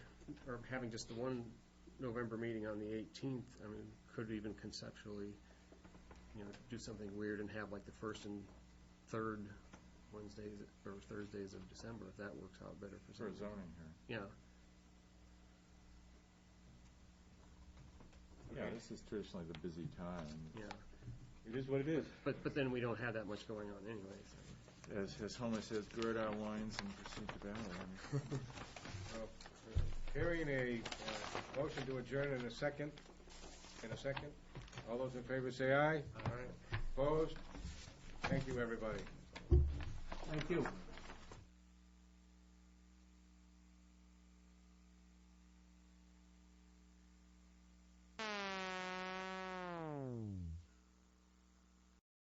or having just the one November meeting on the 18th, I mean, could even conceptually, you know, do something weird and have like the first and third Wednesdays or Thursdays of December, if that works out better for some. for a zoning hearing. Yeah, Yeah, this is traditionally the busy time. yeah. It is what it is. But, but then we don't have that much going on anyway, so. As, as Homer says, gird our loins and proceed to battle. I mean, Hearing a uh, motion to adjourn in a second, in a second. All those in favor say aye. All right. Opposed? Thank you, everybody. Thank you.